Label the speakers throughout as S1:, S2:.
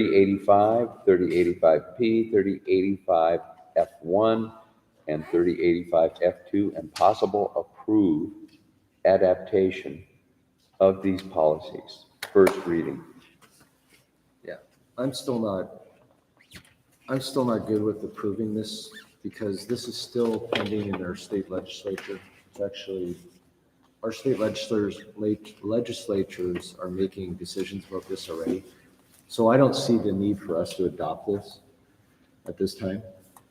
S1: 3085, 3085P, 3085F1, and 3085F2, and possible approve adaptation of these policies. First reading.
S2: Yeah, I'm still not, I'm still not good with approving this because this is still pending in our state legislature. It's actually, our state legislators, late- legislatures are making decisions about this already. So I don't see the need for us to adopt this at this time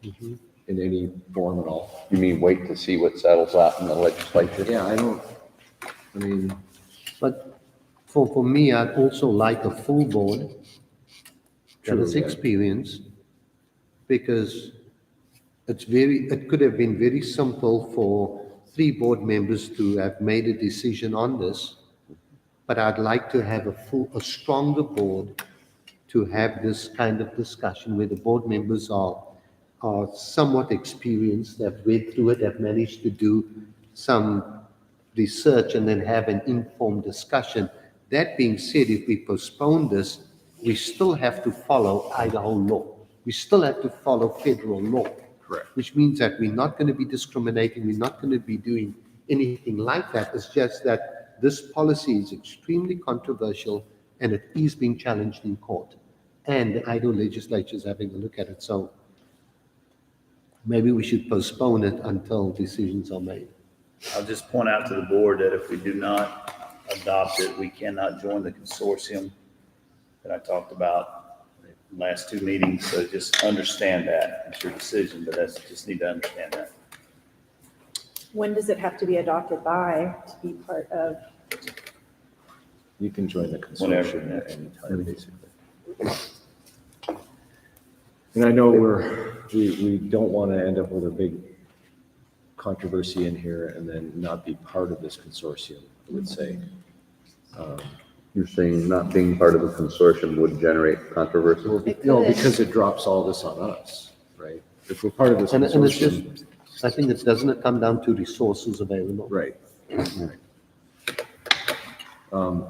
S2: in any form at all.
S1: You mean wait to see what settles out in the legislature?
S2: Yeah, I don't, I mean,
S3: But for, for me, I'd also like a full board that
S2: True,
S3: is
S2: yeah.
S3: experienced, because it's very, it could have been very simple for three board members to have made a decision on this, but I'd like to have a full, a stronger board to have this kind of discussion where the board members are, are somewhat experienced, have read through it, have managed to do some research and then have an informed discussion. That being said, if we postpone this, we still have to follow Idaho law. We still have to follow federal law.
S2: Correct.
S3: Which means that we're not going to be discriminating, we're not going to be doing anything like that. It's just that this policy is extremely controversial and it is being challenged in court. And the Idaho legislature is having a look at it, so maybe we should postpone it until decisions are made.
S4: I'll just point out to the board that if we do not adopt it, we cannot join the consortium that I talked about in the last two meetings, so just understand that. It's your decision, but that's, just need to understand that.
S5: When does it have to be adopted by to be part of?
S2: you can join the
S4: Whenever.
S2: consortium at any time, basically. And I know we're, we, we don't want to end up with a big controversy in here and then not be part of this consortium, I would say.
S1: You're saying not being part of a consortium would generate controversy?
S5: It
S2: No,
S5: could.
S2: because it drops all this on us, right? If we're part of this
S3: And, and it's just,
S2: consortium,
S3: I think it doesn't it come down to resources available?
S2: right. right. Um,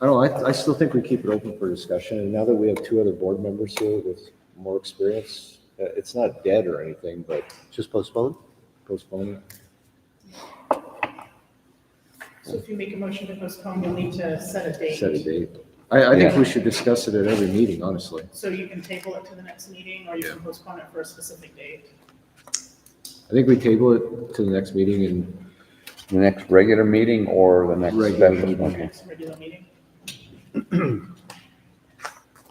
S2: I don't, know, I, I still think we keep it open for discussion, and now that we have two other board members here with more experience, uh, it's not dead or anything, but
S3: Just postpone?
S2: postpone it.
S6: So if you make a motion to postpone, you'll need to set a
S2: set a
S6: date.
S2: date. I, I think
S1: Yeah.
S2: we should discuss it at every meeting, honestly.
S6: So you can table it to the next meeting, or you can postpone it for a specific date.
S2: I think we table it to the next meeting and
S1: The next regular meeting or the next
S2: Regular
S1: special?
S2: meeting.
S1: Okay.
S6: Next regular meeting.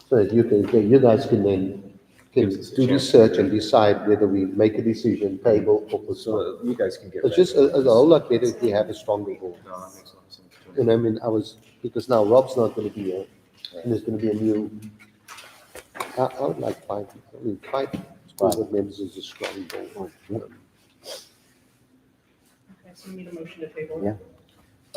S3: So that you can, you guys can then, can
S2: Gives us a
S3: do
S2: chance.
S3: research and decide whether we make a decision, table or postpone.
S2: so uh, you guys can get.
S3: It's just, uh,
S2: back to
S3: a- it's a whole lot better if we have a stronger board.
S2: No, that makes a lot of sense to me.
S3: And I mean, I was, because now Rob's not gonna be here, and there's gonna be a new, I, I would like five, I mean, five school board members is a strong board.
S6: Okay, so you need a motion to table.
S1: Yeah.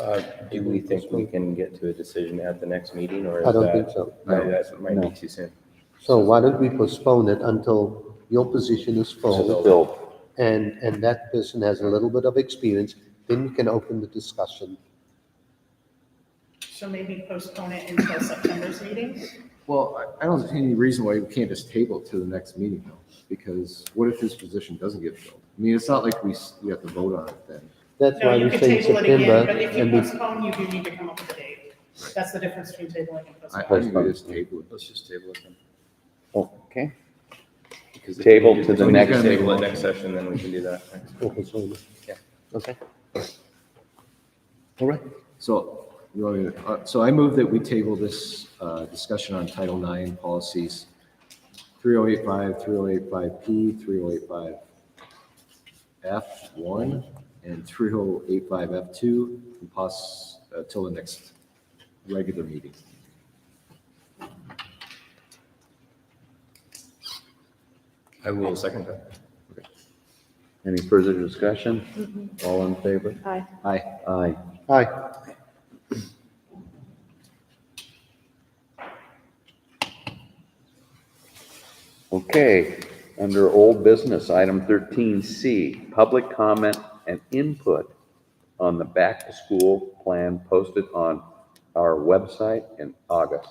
S7: Uh, Do we think we can get to a decision at the next meeting, or is that?
S3: I don't think so.
S7: No, that might
S1: No.
S7: be too soon.
S3: So why don't we postpone it until your position is filled?
S1: Bill,
S3: and, and that person has a little bit of experience, then we can open the discussion.
S6: So maybe postpone it until September's meeting?
S2: Well, I, I don't see any reason why we can't just table it to the next meeting though, because what if his position doesn't get filled? I mean, it's not like we, s- we have to vote on it then.
S3: That's
S6: No,
S3: why
S6: you
S3: we
S6: can
S3: say
S6: table it
S3: September,
S6: again, but if you
S3: and we,
S6: postpone, you do need to come up with a date. That's the difference between tabling and
S2: I, I
S6: postponing.
S2: think we just table it.
S7: Let's just table it then.
S1: okay.
S7: because if
S1: Table
S7: we
S1: to the
S7: just
S1: next
S7: Table
S2: meeting.
S7: it next session, then we can do that. Yeah.
S3: okay? All right,
S2: So, you want me to- uh, so I move that we table this uh, discussion on Title IX policies, 3085, 3085P, 3085F1, and 3085F2, and pos, uh, till the next regular meeting.
S7: I will second that.
S1: Any further discussion? All in favor?
S5: Aye.
S2: Aye.
S1: Aye.
S3: hi,
S1: Okay, under old business, item thirteen C, public comment and input on the back-to-school plan posted on our website in August.